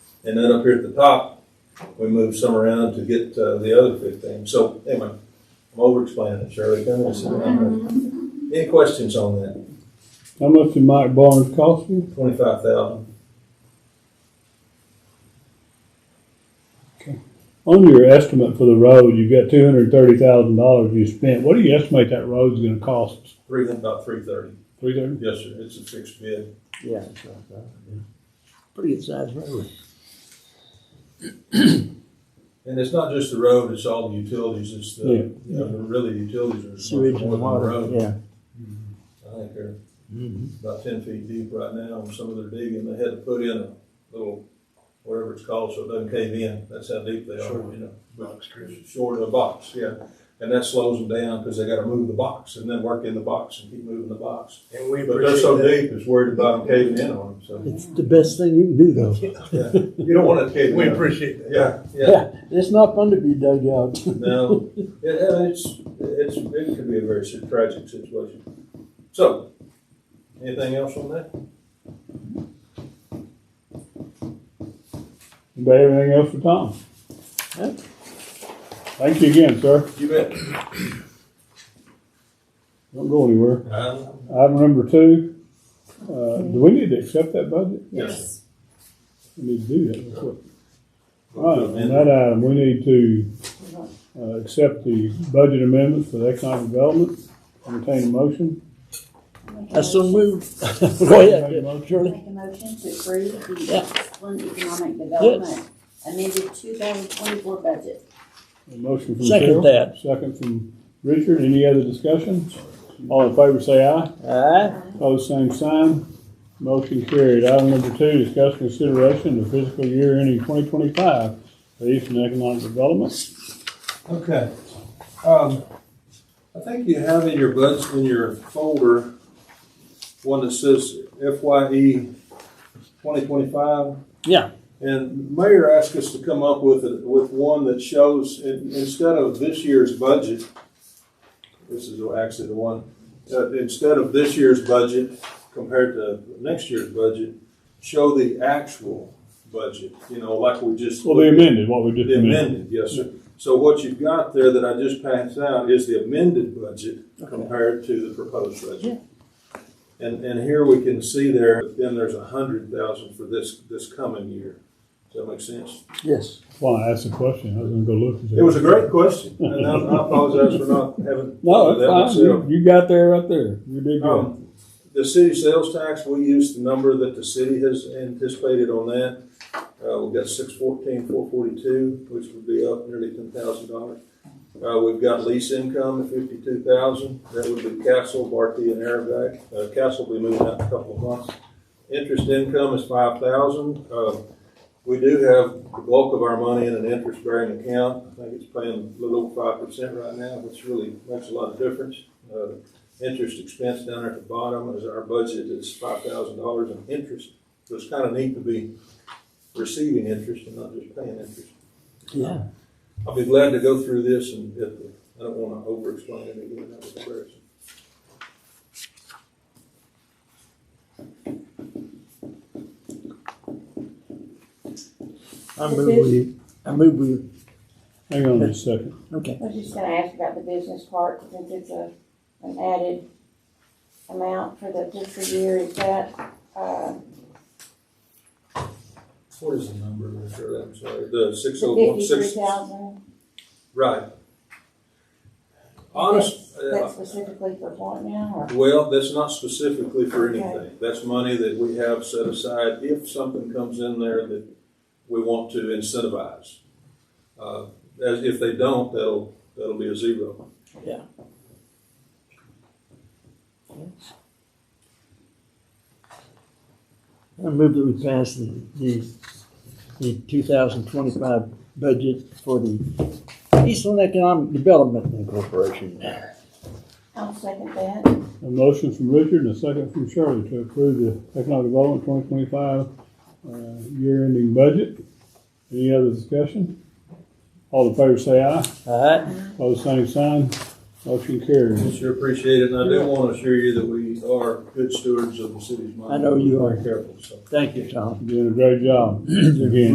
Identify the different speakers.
Speaker 1: And then up here at the top, we moved some around to get uh, the other fifteen. So anyway, I'm over explaining it, Shirley. Come and sit down. Any questions on that?
Speaker 2: How much did Mike Barnes cost you?
Speaker 1: Twenty-five thousand.
Speaker 2: On your estimate for the road, you've got two hundred and thirty thousand dollars you spent. What do you estimate that road's gonna cost?
Speaker 1: Three about three thirty.
Speaker 2: Three thirty?
Speaker 1: Yes, sir. It's a fixed bid.
Speaker 3: Yeah, it's like that, yeah. Pretty good sized road.
Speaker 1: And it's not just the road, it's all the utilities. It's the,
Speaker 2: Yeah.
Speaker 1: you know, really utilities are.
Speaker 3: Sewage
Speaker 1: more
Speaker 3: and
Speaker 1: than the
Speaker 3: water, Mm-hmm.
Speaker 1: road.
Speaker 3: yeah.
Speaker 1: I think they're about ten feet deep right now, and some of their digging, they had to put in a little, whatever it's called, so it doesn't cave in, that's how deep they are, you know. Box Short of a box, yeah, and that slows them down, because they gotta move the box, and then work in the box, and keep moving the box.
Speaker 4: And we
Speaker 1: But they're so
Speaker 4: appreciate that.
Speaker 1: deep, it's worried about them caving in on them, so,
Speaker 3: It's the best thing you can do though.
Speaker 1: yeah, you don't want it to cave in.
Speaker 4: We appreciate that.
Speaker 1: Yeah, yeah,
Speaker 3: Yeah, it's not fun to be dug out.
Speaker 1: no, it, it's, it's, it could be a very tragic situation. So, anything else on that?
Speaker 2: Anybody have anything else for Tom?
Speaker 3: Huh?
Speaker 2: Thank you again, sir.
Speaker 1: You bet.
Speaker 2: Don't go anywhere.
Speaker 1: Um,
Speaker 2: Item number two, uh, do we need to accept that budget?
Speaker 1: Yes.
Speaker 2: We need to do that. real quick. All right, on that item, we need to, uh, accept the budget amendments for the economic development. Entertain a motion.
Speaker 3: I so moved. Go ahead, Shirley.
Speaker 5: Make a motion to approve
Speaker 3: Yeah.
Speaker 5: the Flint Economic Development amended two thousand twenty-four budget.
Speaker 2: A motion from
Speaker 3: Second
Speaker 2: Cheryl.
Speaker 3: that.
Speaker 2: Second from Richard. Any other discussion? All in favor, say aye.
Speaker 3: Aye.
Speaker 2: Pose same sign. Motion carried. Item number two, discuss consideration of fiscal year ending twenty twenty-five for Eastern Economic Development.
Speaker 1: Okay. Um, I think you have in your budget, in your folder, one that says FYE twenty twenty-five.
Speaker 3: Yeah.
Speaker 1: And Mayor asked us to come up with, a- with one that shows, in- instead of this year's budget, this is actually the one, uh, instead of this year's budget compared to next year's budget, show the actual budget, you know, like we just.
Speaker 2: Well, the amended, what we just
Speaker 1: The
Speaker 2: amended.
Speaker 1: amended, yes, sir. So what you've got there that I just passed out is the amended budget compared to the proposed budget. And, and here we can see there, then there's a hundred thousand for this, this coming year. Does that make sense?
Speaker 3: Yes.
Speaker 2: Well, I asked the question. I was gonna go look.
Speaker 1: It was a great question, and I I apologize for not having.
Speaker 2: No,
Speaker 1: that
Speaker 2: that's fine.
Speaker 1: myself.
Speaker 2: You, you got there right there. You did good.
Speaker 1: Um, The city sales tax, we use the number that the city has anticipated on that. Uh, we've got six fourteen, four forty-two, which would be up nearly ten thousand dollars. Uh, we've got lease income at fifty-two thousand, that would be Castle, Barkey, and Arabic. Uh, Castle will be moving out in a couple of months. Interest income is five thousand. Uh, we do have the bulk of our money in an interest-bearing account. I think it's paying a little over five percent right now, which really makes a lot of difference. Uh, interest expense down there at the bottom is our budget is five thousand dollars in interest. So it's kind of neat to be receiving interest and not just paying interest.
Speaker 3: Yeah.
Speaker 1: I'll be glad to go through this and get the, I don't want to over-explain it again, that was embarrassing.
Speaker 3: I move with you. I move with you.
Speaker 2: Hang on just a second.
Speaker 3: Okay.
Speaker 5: I was just gonna ask about the business part, since it's a, an added amount for the fiscal year, is that, uh,
Speaker 1: What is the number, Mr. I'm sorry, the six oh one
Speaker 5: fifty-three
Speaker 1: six?
Speaker 5: thousand?
Speaker 1: Right. Honest,
Speaker 5: That's
Speaker 1: uh,
Speaker 5: specifically for what now, or?
Speaker 1: well, that's not specifically for
Speaker 5: Okay.
Speaker 1: anything. That's money that we have set aside if something comes in there that we want to incentivize. Uh, As, if they don't, that'll, that'll be a zero.
Speaker 3: I move that we pass the, the, the two thousand twenty-five budget for the Eastland Economic Development Incorporation.
Speaker 5: I'll second that.
Speaker 2: A motion from Richard and a second from Shirley to approve the economic development twenty twenty-five, uh, year ending budget. Any other discussion? All in favor, say aye.
Speaker 3: Alright,
Speaker 2: Pose same sign. Motion carries.
Speaker 1: We Sure appreciate it, and I do want to assure you that we are good stewards of the city's money.
Speaker 3: I know you are.
Speaker 1: Very Careful, so.
Speaker 3: thank you, Tom.
Speaker 2: You're Doing a great job. Again,